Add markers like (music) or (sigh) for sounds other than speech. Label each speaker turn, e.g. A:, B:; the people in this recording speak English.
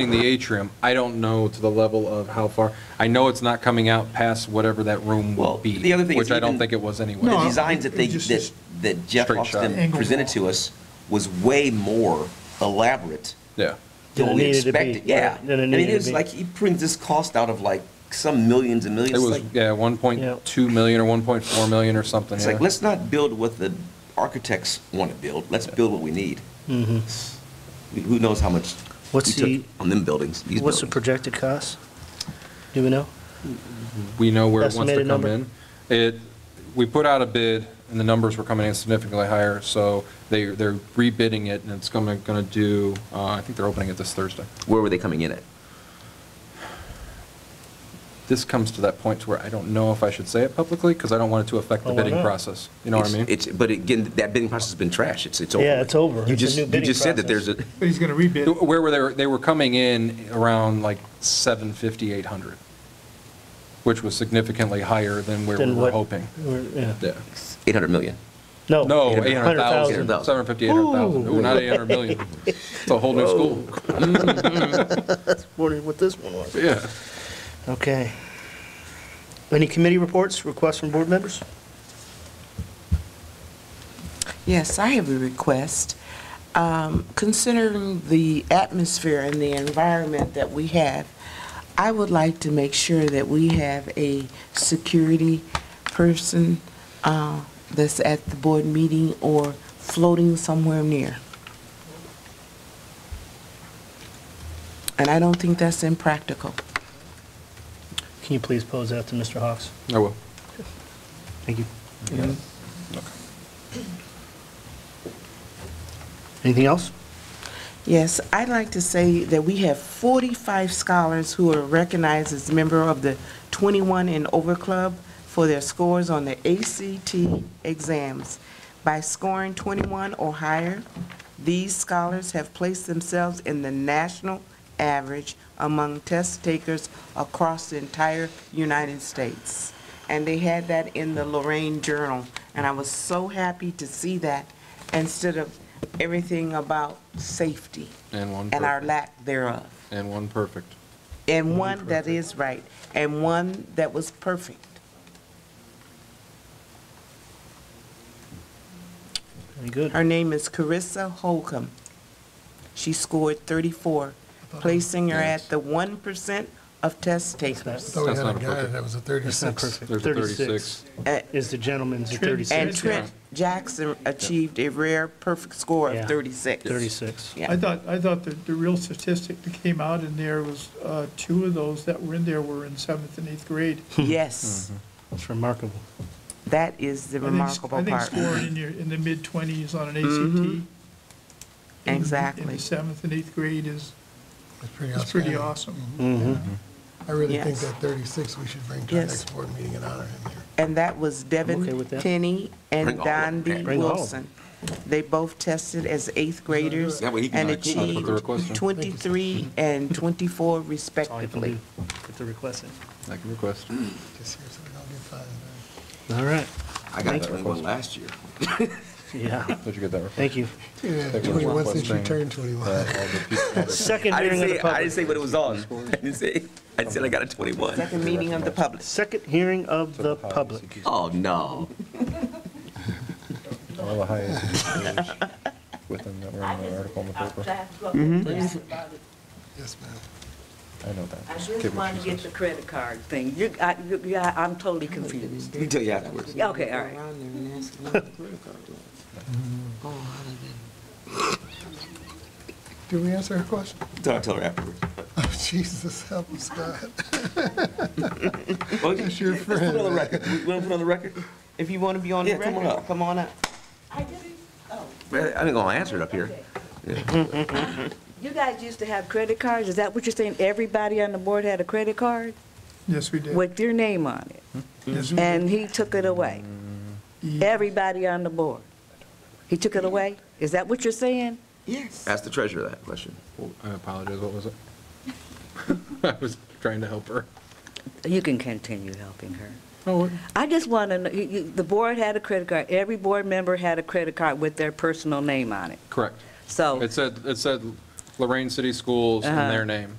A: expanding the atrium, I don't know to the level of how far, I know it's not coming out past whatever that room
B: Well,
A: would be.
B: the other thing is
A: Which I don't
B: even-
A: think it was anyway.
B: The
C: No,
B: designs that they,
C: it just-
B: that that Jeff
A: Straight shot.
B: Austin
C: Angle
B: presented to us was way more elaborate
A: Yeah.
D: Than it
B: than we
D: needed to be,
B: expected, yeah.
D: right,
B: I
D: than it
B: mean,
D: needed
B: it
D: to
B: was
D: be.
B: like, he brings this cost out of like some millions and
A: It
B: millions. It's
A: was,
B: like-
A: yeah, 1.2 million or 1.4 million or something.
B: It's
A: yeah.
B: like, let's not build what the architects want to build, let's build what we need. Who- Who knows how much we
D: Mm-hmm. What's
B: took
D: the-
B: on them buildings, these
D: What's the
B: buildings.
D: projected cost? Do we know?
A: we know where it wants to
D: Estimated
A: come in.
D: number?
A: It, we put out a bid, and the numbers were coming in significantly higher, so they, they're rebidding it, and it's gonna, gonna do, uh, I think they're opening it this Thursday.
B: Where were they coming in at?
A: This comes to that point to where I don't know if I should say it publicly, because I don't want it to affect the
D: Oh, why
A: bidding
D: not?
A: process. You know what I
B: It's-
A: mean?
B: It's, but again, that bidding process has been trash, it's, it's over.
D: Yeah,
B: with.
D: it's over.
B: You
D: It's a
B: just,
D: new
B: you
D: bidding
B: just said that there's
D: process.
B: a,
C: But he's going to rebid.
A: Where were they, they were coming in around like 750, 800, which was significantly higher than where we
D: Then
A: were
D: what- Oh.
A: hoping.
D: we're- yeah.
A: Yeah.
B: 800 million.
D: No.
A: No,
B: 800,000.
A: 800,000, 750, 800,000, Ooh, not 800
D: (laughs)
A: million. It's a whole new school.
D: Wondering what this one was.
A: Yeah.
D: Okay. Any committee reports, requests from board members?
E: Yes, I have a request. Um, Considering the atmosphere and the environment that we have, I would like to make sure that we have a security person uh, that's at the board meeting or floating somewhere near. And I don't think that's impractical.
D: Can you please pose that to Mr. Hawks?
A: I will.
D: Thank you. Anything else?
E: Yes, I'd like to say that we have 45 scholars who are recognized as member of the 21 and Over Club for their scores on the ACT exams. By scoring 21 or higher, these scholars have placed themselves in the national average among test takers across the entire United States. And they had that in the Lorraine Journal, and I was so happy to see that instead of everything about safety
A: And one
E: and our
A: perfect. Mm-hmm.
E: lack thereof.
A: And one perfect.
E: And one that is right, and one that was perfect.
D: Very good.
E: Her name is Carissa Holcomb. She scored 34, placing her at the 1% of test takers.
C: Thought we
A: That's
C: had
A: not
C: a guy
A: appropriate.
C: that was a
D: That's not
C: 36.
D: perfect.
A: There's a 36.
E: A-
D: Is the gentleman's at
E: And
D: 36?
E: Trent Jackson achieved a rare perfect score of
D: Yeah.
E: 36.
D: 36.
E: Yeah.
F: I thought, I thought the, the real statistic that came out in there was, uh, two of those that were in there were in seventh and eighth grade.
E: Yes,
A: Mm-hmm.
D: That's remarkable.
E: that is the
F: I think-
E: remarkable
F: I
E: part.
F: think scoring in your, in the mid-twenties on an ACT. In
E: Exactly.
F: the seventh and eighth grade is,
C: It's pretty
F: is pretty
C: outstanding.
F: awesome.
D: Mm-hmm.
C: I really think
E: Yes.
C: that 36, we should bring to our
E: Yes.
C: next board meeting and honor him here.
E: And that was
D: okay
E: Devin
D: with that.
E: Penny and
B: Bring all of them.
E: Don B.
B: Bring
D: all of
E: Wilson. They both tested as eighth graders
B: That way he can
E: and
B: not keep up with the
E: achieved
A: request, huh?
E: 23 and 24
D: That's all you can
E: respectively.
D: do. Get the request in.
A: I can request.
C: Just here so we don't get fined. right?
D: All right.
B: I got
D: Thank
B: that
D: you.
B: one last year.
D: Yeah.
A: Did you get that? request?
D: Thank you.
C: Yeah,
A: Take one
C: 21
A: request
C: since you
A: thing.
C: turned 21.
A: Uh, all
D: (laughs)
A: the people-
D: Second
B: I didn't
D: hearing of
B: say,
D: the
B: I didn't say
D: public.
B: what it was on. (laughs) I didn't say, I said I got a 21.
E: Second meeting of the public.
D: Second hearing of the public.
B: Oh, no.
A: All the highest figures
G: (laughs)
A: within that were in the article in the paper.
C: Yes, ma'am.
A: I know that.
G: I
A: Just
G: just
A: give what
G: wanted to
A: she
G: get
A: says.
G: the credit card thing. You, I, you, yeah, I'm totally confused.
B: We can tell you afterwards.
G: Yeah, Okay, all right.
C: Did we answer her question? (laughs)
B: Tell tell her afterwards.
C: Oh, Jesus, help us, God. (laughs)
B: Well, That's your Let's put it on the
C: friend.
B: record. You want to put it on the record?
E: If you want to be on
B: Yeah,
E: the
B: come on
E: record,
B: up.
E: come on up.
G: oh,
B: Man, I ain't gonna answer it up here.
G: You guys used to have credit cards? Is that what you're saying? Everybody on the board had a credit card
F: Yes, we did.
G: with your name on it?
F: Yes, we did.
G: And he took it away? Everybody on the board? He took it away? Is that what you're saying?
E: Yes.
B: Ask the treasurer that question.
A: I apologize, what was it? (laughs) I was trying to help her.
G: You can continue helping her.
A: Oh,
G: I just want to, know. you- you- the board had a credit card, every board member had a credit card with their personal name on it.
A: correct.
G: So,
A: It said, it said Lorraine City Schools in
G: Uh-huh.
A: their name.